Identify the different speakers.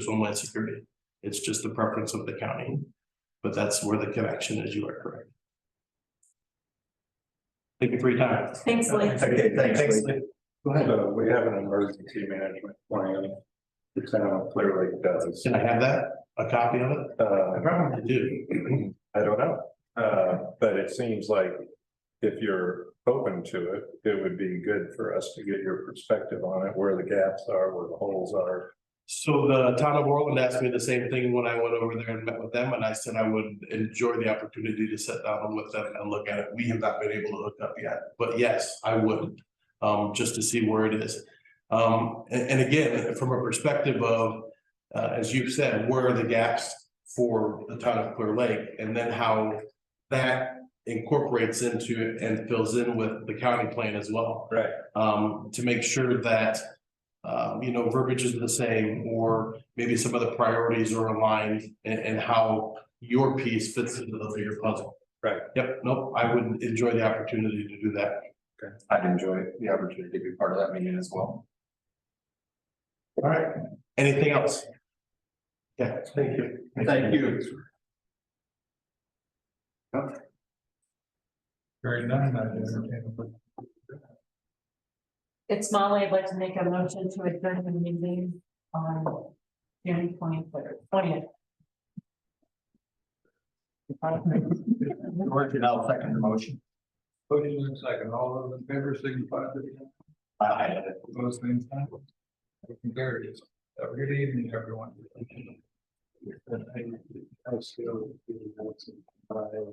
Speaker 1: is homeland security. It's just the preference of the county. But that's where the connection is, you are correct. Thank you for your time.
Speaker 2: Thanks, Lee.
Speaker 3: Okay, thanks, Lee.
Speaker 1: Lee.
Speaker 3: Go ahead. So we have an emergency management plan. It's kind of clearly does.
Speaker 1: Can I have that, a copy of it?
Speaker 3: Uh,
Speaker 1: I probably do.
Speaker 3: I don't know, uh, but it seems like if you're open to it, it would be good for us to get your perspective on it, where the gaps are, where the holes are.
Speaker 1: So the town of Orland asked me the same thing when I went over there and met with them, and I said I would enjoy the opportunity to sit down with them and look at it. We have not been able to hook up yet, but yes, I would. Um, just to see where it is. Um, a- and, again, from a perspective of, uh, as you've said, where are the gaps for the town of Clear Lake? And then how that incorporates into and fills in with the county plan as well
Speaker 3: Right.
Speaker 1: um, to make sure that. Um, you know, verbiage is the same, or maybe some of the priorities are aligned and, and how your piece fits into the bigger puzzle.
Speaker 3: Right.
Speaker 1: Yep, nope, I would enjoy the opportunity to do that.
Speaker 4: I'd enjoy the opportunity to be part of that meeting as well.
Speaker 1: All right, anything else? Yeah, thank you.
Speaker 4: Thank you.
Speaker 3: Very nice. I
Speaker 2: It's Molly. I'd like to make a motion to adjourn the meeting on January twenty third, twentieth.
Speaker 4: George, and I'll second the motion.
Speaker 3: Motion in second, all those in favor signify by
Speaker 4: Aye.
Speaker 3: opposed, same sign. Motion carries. Have a good evening, everyone.